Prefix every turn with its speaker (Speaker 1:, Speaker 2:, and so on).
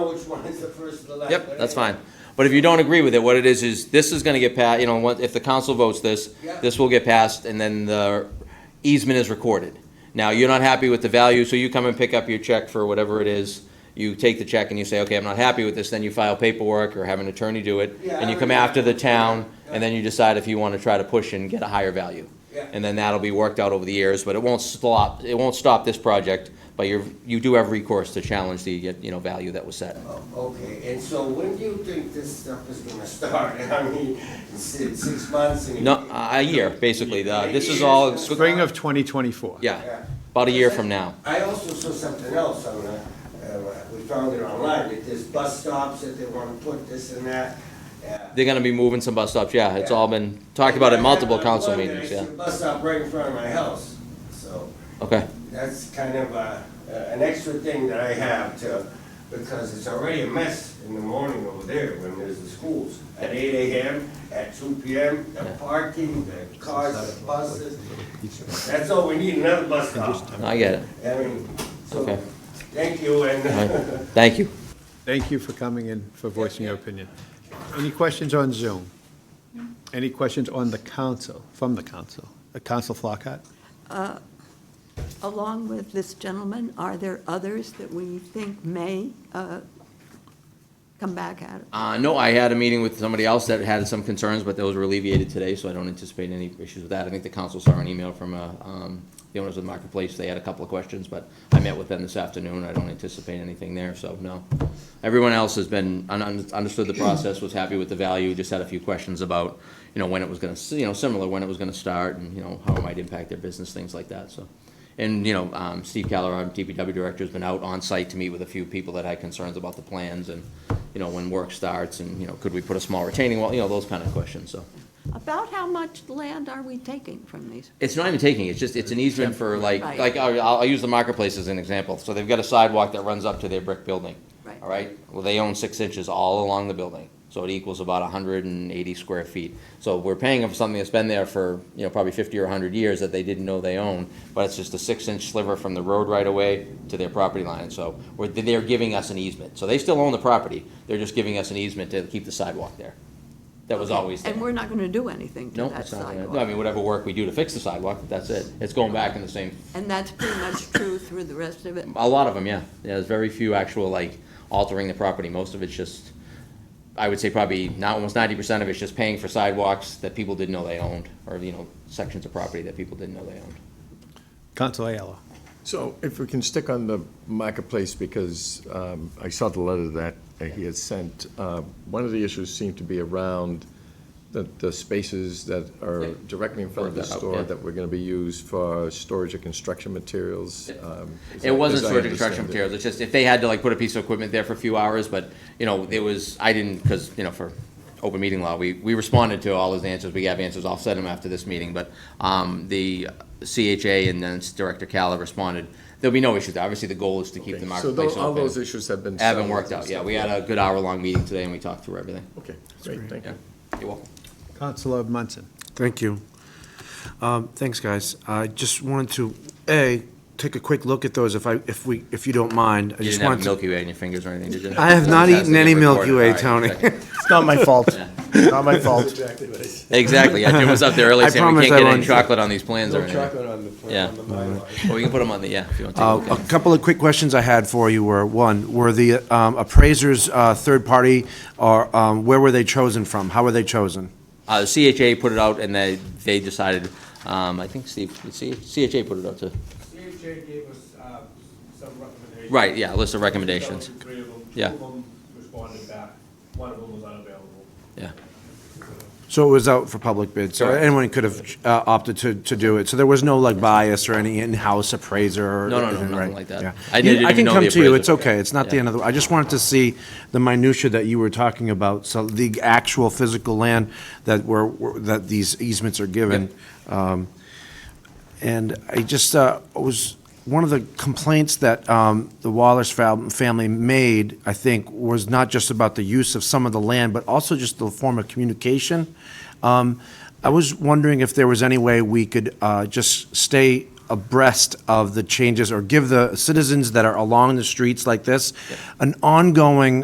Speaker 1: Which one is the first and the last?
Speaker 2: Yep, that's fine. But if you don't agree with it, what it is, is this is gonna get passed, you know, what- if the council votes this,
Speaker 1: Yeah.
Speaker 2: this will get passed, and then the easement is recorded. Now, you're not happy with the value, so you come and pick up your check for whatever it is. You take the check and you say, okay, I'm not happy with this, then you file paperwork or have an attorney do it,
Speaker 1: Yeah,
Speaker 2: and
Speaker 1: I
Speaker 2: you come
Speaker 1: already-
Speaker 2: after the town,
Speaker 1: Yeah.
Speaker 2: and then you decide if you wanna try to push and get a higher value.
Speaker 1: Yeah.
Speaker 2: And then that'll be worked out over the years, but it won't stop, it won't stop this project, but you're, you do have recourse to challenge the, you know, value that was set.
Speaker 1: Oh, Okay, and so when do you think this stuff is gonna start? I mean, si- six months and.
Speaker 2: No, a a year, basically. The- This is all,
Speaker 1: Spring
Speaker 3: of 2024.
Speaker 2: yeah, about a year from now.
Speaker 1: I also saw something else on, uh, uh, we found it online, that there's bus stops that they wanna put this and that. uh,
Speaker 2: They're gonna be moving some bus stops, yeah. It's all been talked about at
Speaker 1: I
Speaker 2: multiple
Speaker 1: have
Speaker 2: council
Speaker 1: one that I
Speaker 2: meetings,
Speaker 1: see
Speaker 2: yeah.
Speaker 1: a Bus stop right in front of my house, so.
Speaker 2: Okay,
Speaker 1: That's kind of a, an extra thing that I have to, because it's already a mess in the morning over there when there's the schools. At eight AM, at two PM, the parking, the cars, the buses. That's all, we need another bus stop.
Speaker 2: No, I get it.
Speaker 1: I mean, so,
Speaker 2: Okay.
Speaker 1: thank you
Speaker 2: All
Speaker 1: and.
Speaker 2: right. Thank you.
Speaker 3: Thank you for coming and for voicing your opinion. Any questions on Zoom? Any questions on the council, from the council? Uh, Council Flockhart?
Speaker 4: Along with this gentleman, are there others that we think may uh, come back at it?
Speaker 2: Uh, no, I had a meeting with somebody else that had some concerns, but those were alleviated today, so I don't anticipate any issues with that. I think the council saw an email from, uh, um, the owners of the marketplace. They had a couple of questions, but I met with them this afternoon. I don't anticipate anything there, so no. Everyone else has been, un- un- understood the process, was happy with the value, just had a few questions about, you know, when it was gonna, s- you know, similar, when it was gonna start and, you know, how it might impact their business, things like that, so. And, you know, um, Steve Keller, our DPW director, has been out on site to meet with a few people that had concerns about the plans and, you know, when work starts and, you know, could we put a small retaining wall, you know, those kind of questions, so.
Speaker 4: About how much land are we taking from these?
Speaker 2: It's not even taking, it's just, it's an easement for like,
Speaker 4: Right.
Speaker 2: like, I'll, I'll use the marketplace as an example. So they've got a sidewalk that runs up to their brick building.
Speaker 4: Right.
Speaker 2: All right, well, they own six inches all along the building, so it equals about hundred and eighty square feet. So we're paying them for something that's been there for, you know, probably fifty or hundred years that they didn't know they owned, but it's just a six-inch sliver from the road right away to their property line, so we're, they're giving us an easement. So they still own the property, they're just giving us an easement to keep the sidewalk there. That was always there.
Speaker 4: And we're not going to do anything to
Speaker 2: No,
Speaker 4: that
Speaker 2: it's not gonna, no, I
Speaker 4: sidewalk.
Speaker 2: mean, whatever work we do to fix the sidewalk, that's it. It's going back in the same,
Speaker 4: And that's pretty much true through the rest of it.
Speaker 2: a lot of them, yeah. Yeah, There's very few actual, like, altering the property. Most of it's just, I would say probably not, almost ninety percent of it's just paying for sidewalks that people didn't know they owned, or, you know, sections of property that people didn't know they owned.
Speaker 3: Council Ayala?
Speaker 5: So if we can stick on the marketplace, because um, I saw the letter that he has sent, uh, one of the issues seemed to be around the, the spaces that
Speaker 2: Yeah.
Speaker 5: are directly in front of the
Speaker 2: Brought that up,
Speaker 5: store
Speaker 2: yeah.
Speaker 5: that were going to be used for storage of construction materials. um, as I-
Speaker 2: It wasn't
Speaker 5: as I
Speaker 2: storage of construction
Speaker 5: understand it.
Speaker 2: materials, it's just if they had to like put a piece of equipment there for a few hours, but, you know, it was, I didn't, because, you know, for open meeting law, we, we responded to all his answers, we gave answers, I'll send them after this meeting, but, um, the CHA and then Director Calla responded, there'll be no issues, obviously the goal is to keep the
Speaker 5: So tho-
Speaker 2: marketplace
Speaker 5: all those
Speaker 2: open.
Speaker 5: issues have been.
Speaker 2: Haven't
Speaker 5: settled
Speaker 2: worked
Speaker 5: and
Speaker 2: out, yeah,
Speaker 5: stuff,
Speaker 2: we had a good hour-long meeting today and we talked through everything.
Speaker 5: Okay, great, thank you.
Speaker 2: You're welcome.
Speaker 3: Councilor Munson?
Speaker 6: Thank you. Um, Thanks, guys. I just wanted to, A, take a quick look at those if I, if we, if you don't mind. I
Speaker 2: You
Speaker 6: just
Speaker 2: didn't have
Speaker 6: wanted to.
Speaker 2: Milky Way in your fingers or anything, did you?
Speaker 6: I have not eaten any Milky Way,
Speaker 2: Fantastic,
Speaker 6: Tony.
Speaker 2: recorded. All right,
Speaker 6: It's not my fault. Not my fault.
Speaker 2: Exactly, yeah, Jim was up there early
Speaker 6: I
Speaker 2: saying we
Speaker 6: promise I
Speaker 2: can't get any
Speaker 6: won't.
Speaker 2: chocolate on these plans or
Speaker 5: No
Speaker 2: anything.
Speaker 5: chocolate on the,
Speaker 2: Yeah.
Speaker 5: on the Mylar.
Speaker 2: Well, we can put them on the, yeah, if you want to. take a look at
Speaker 6: Uh,
Speaker 2: 'em.
Speaker 6: A couple of quick questions I had for you were, one, were the um, appraisers uh, third party, or um, where were they chosen from? How were they chosen?
Speaker 2: Uh, CHA put it out and they, they decided, um, I think Steve, C- CHA put it out too.
Speaker 7: CHA gave us uh, some recommendations.
Speaker 2: Right, yeah, a list of recommendations.
Speaker 7: That was Three of them.
Speaker 2: Yeah.
Speaker 7: Two of them responded back, one of them was unavailable.
Speaker 2: Yeah.
Speaker 6: So it was out for public bid, so
Speaker 2: Correct.
Speaker 6: anyone could have uh, opted to, to do it. So there was no like bias or any in-house appraiser or
Speaker 2: No, no, no,
Speaker 6: anything,
Speaker 2: nothing
Speaker 6: right?
Speaker 2: like that.
Speaker 6: Yeah.
Speaker 2: I
Speaker 6: You-
Speaker 2: didn't
Speaker 6: I
Speaker 2: even
Speaker 6: can
Speaker 2: know
Speaker 6: come
Speaker 2: the
Speaker 6: to you,
Speaker 2: appraiser.
Speaker 6: it's okay, it's not the
Speaker 2: Yeah.
Speaker 6: end of the, I just wanted to see the minutia that you were talking about, so the actual physical land that were, were- that these easements are given. Um, And I just, uh, was, one of the complaints that um, the Wallace fam- family made, I think, was not just about the use of some of the land, but also just the form of communication. Um, I was wondering if there was any way we could uh, just stay abreast of the changes or give the citizens that are along the streets like this an ongoing